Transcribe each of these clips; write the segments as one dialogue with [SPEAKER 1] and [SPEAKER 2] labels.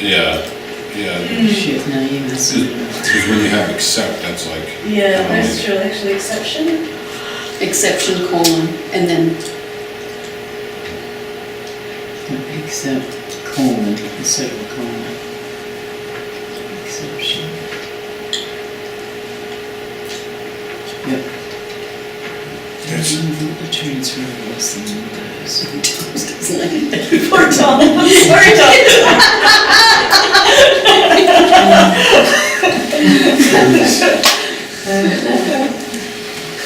[SPEAKER 1] Yeah, yeah.
[SPEAKER 2] Shit, now you mess it up.
[SPEAKER 1] Because when you have accept, that's like.
[SPEAKER 3] Yeah, that's true, actually, exception.
[SPEAKER 4] exception colon, and then,
[SPEAKER 2] Except colon, instead of a colon. Exception. Yep.
[SPEAKER 1] Yes.
[SPEAKER 2] The transfer of less than those.
[SPEAKER 4] doesn't like it.
[SPEAKER 3] Poor Tom, poor Tom.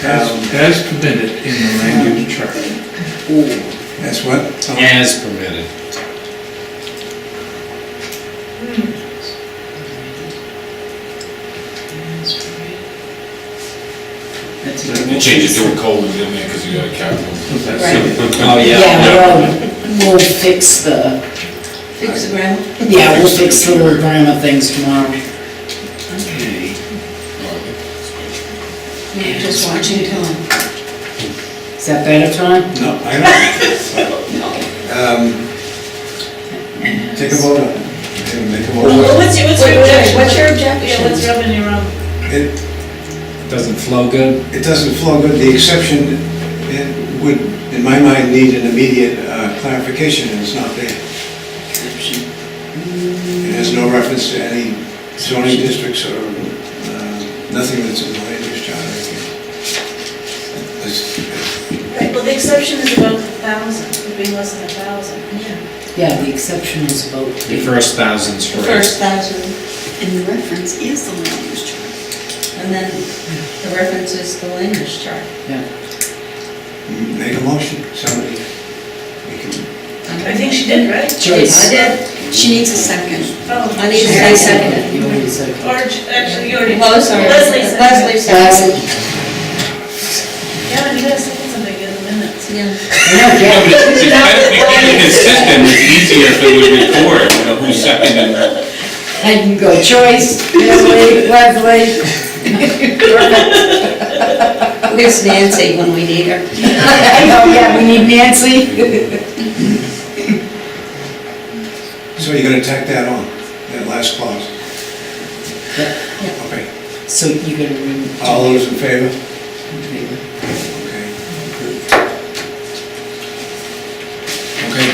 [SPEAKER 5] As, as permitted in the land use chart.
[SPEAKER 6] That's what? Tom?
[SPEAKER 1] As permitted.
[SPEAKER 2] That's a
[SPEAKER 1] And
[SPEAKER 2] good
[SPEAKER 1] change it to a colon, didn't they, because you got a capital.
[SPEAKER 5] So that's
[SPEAKER 4] Right.
[SPEAKER 7] Oh, yeah.
[SPEAKER 2] Yeah, we'll, we'll fix the,
[SPEAKER 4] Fix the grammar.
[SPEAKER 2] yeah, we'll fix the little grammar things tomorrow.
[SPEAKER 5] okay.
[SPEAKER 4] Yeah, just watching Tom.
[SPEAKER 2] Is that better, Tom?
[SPEAKER 6] No, I don't. Um, Take a vote on it. Okay, Make a
[SPEAKER 3] Well,
[SPEAKER 6] motion.
[SPEAKER 3] What's your, what's
[SPEAKER 4] Wait, wait,
[SPEAKER 3] your
[SPEAKER 4] wait,
[SPEAKER 3] objection?
[SPEAKER 4] what's your
[SPEAKER 3] Yeah, what's
[SPEAKER 4] objection?
[SPEAKER 3] rubbing you wrong?
[SPEAKER 6] It,
[SPEAKER 7] Doesn't flow good.
[SPEAKER 6] it doesn't flow good, the exception, it would, in my mind, need an immediate uh, clarification, and it's not there.
[SPEAKER 2] Exception.
[SPEAKER 6] It has no reference to any zoning districts or uh, nothing that's in the land use uh, chart. I think. It's-
[SPEAKER 3] Right, well, the exception is about a thousand, would be less than a thousand. Yeah.
[SPEAKER 2] Yeah, the exception is about.
[SPEAKER 7] The first thousand's
[SPEAKER 8] The
[SPEAKER 7] for
[SPEAKER 8] first thousand,
[SPEAKER 4] And the reference is the land use chart.
[SPEAKER 8] and then the reference is the land use chart.
[SPEAKER 2] Yeah,
[SPEAKER 6] Make a motion, somebody. We can-
[SPEAKER 3] I think she did, right?
[SPEAKER 2] Joyce.
[SPEAKER 8] I did,
[SPEAKER 4] She needs a second.
[SPEAKER 8] I
[SPEAKER 3] Oh,
[SPEAKER 8] need to
[SPEAKER 4] Yeah.
[SPEAKER 8] say second.
[SPEAKER 2] you already said it.
[SPEAKER 3] or, actually, you already.
[SPEAKER 8] Oh, sorry,
[SPEAKER 3] Leslie said. it.
[SPEAKER 8] Leslie seconded.
[SPEAKER 3] Yeah, you gotta second something in the minutes.
[SPEAKER 8] Yeah.
[SPEAKER 2] No, yeah,
[SPEAKER 1] It's better becoming consistent, it's easier if it would record, you know, who's seconded.
[SPEAKER 2] I can go Joyce, Leslie, Leslie.
[SPEAKER 8] Where's Nancy when we need her?
[SPEAKER 2] Oh, yeah, we need Nancy.
[SPEAKER 6] So you're gonna tack that on, that last clause? Okay,
[SPEAKER 2] So you gotta remove.
[SPEAKER 6] all those in favor? Okay. Okay,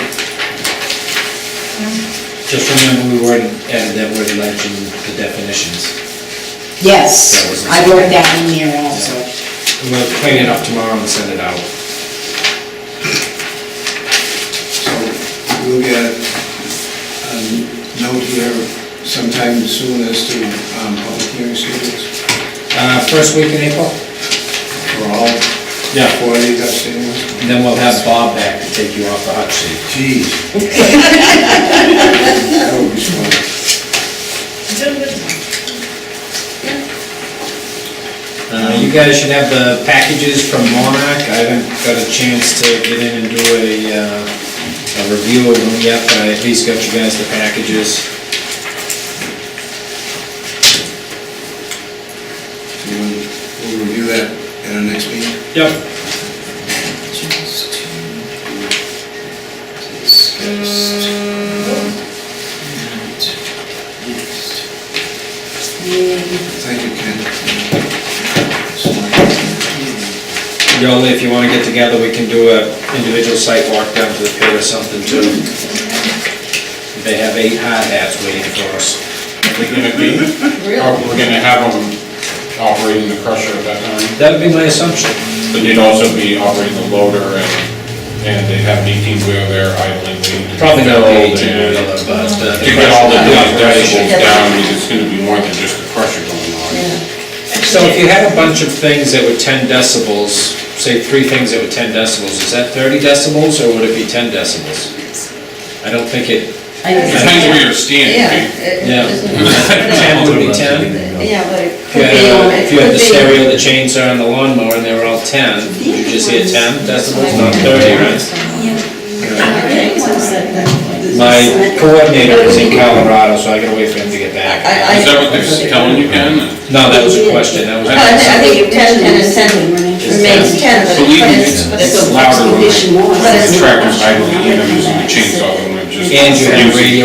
[SPEAKER 7] Just remember we already added that word legend to definitions. That
[SPEAKER 2] Yes,
[SPEAKER 7] was-
[SPEAKER 2] I wrote that in there also.
[SPEAKER 7] We'll clean it up tomorrow and send it out.
[SPEAKER 6] so we'll get a note here sometime soon as to um, public hearing schedules
[SPEAKER 7] Uh, first week in April,
[SPEAKER 6] for all
[SPEAKER 7] Yeah.
[SPEAKER 6] four of these outstanding ones.
[SPEAKER 7] and then we'll have Bob back to take you off the hot seat.
[SPEAKER 6] Geez. That would be smart.
[SPEAKER 3] Doing good.
[SPEAKER 7] Uh, you guys should have the packages from Monarch. I haven't got a chance to get in and do a, uh, a review of them yet, but I at least got you guys the packages.
[SPEAKER 6] We'll we'll review that at our next meeting.
[SPEAKER 7] Yep.
[SPEAKER 6] Thank you, Ken.
[SPEAKER 7] Yola, if you wanna get together, we can do a individual site walk down to the pier or something too. They have eight hot hats waiting for us.
[SPEAKER 1] We're gonna be, oh, we're gonna have them operating the crusher at that time,
[SPEAKER 7] That'd be my assumption.
[SPEAKER 1] but they'd also be operating the loader and, and they have an eighteen wheel there idling, waiting to. be
[SPEAKER 7] Probably not the
[SPEAKER 1] filled
[SPEAKER 7] eighteen
[SPEAKER 1] and-
[SPEAKER 7] wheeler, but uh,
[SPEAKER 1] To get all the
[SPEAKER 7] Yeah,
[SPEAKER 1] decibels
[SPEAKER 7] right.
[SPEAKER 1] down, because it's gonna be more than just the crusher going on.
[SPEAKER 7] So if you had a bunch of things that were ten decibels, say three things that were ten decibels, is that thirty decibels or would it be ten decibels? I don't think it,
[SPEAKER 1] Depends where you're
[SPEAKER 8] Yeah.
[SPEAKER 1] standing,
[SPEAKER 8] it-
[SPEAKER 7] yeah.
[SPEAKER 8] it's-
[SPEAKER 7] Ten would be ten.
[SPEAKER 8] Yeah, but it
[SPEAKER 7] If
[SPEAKER 8] could
[SPEAKER 7] you had,
[SPEAKER 8] be on,
[SPEAKER 7] uh,
[SPEAKER 8] it
[SPEAKER 7] if you had
[SPEAKER 8] could be.
[SPEAKER 7] the stereo, the chainsaw, and the lawnmower, and they were all ten, you just hear ten decibels, not thirty, right? My coordinator is in Colorado, so I gotta wait for him to get back.
[SPEAKER 8] I, I.
[SPEAKER 1] is that what they're telling you, Ken?
[SPEAKER 7] No, that was a question, that
[SPEAKER 8] Well,
[SPEAKER 7] was.
[SPEAKER 8] I thi- I think ten, ten is ten, remains ten, but
[SPEAKER 1] Believe me,
[SPEAKER 8] it's,
[SPEAKER 1] it's
[SPEAKER 8] but
[SPEAKER 1] it's
[SPEAKER 8] it's.
[SPEAKER 1] louder when
[SPEAKER 4] Condition
[SPEAKER 1] the
[SPEAKER 4] one.
[SPEAKER 8] But it's-
[SPEAKER 1] tractor's idling, and I'm using the chainsaw, and I'm just.
[SPEAKER 7] And you had
[SPEAKER 1] using-
[SPEAKER 7] radio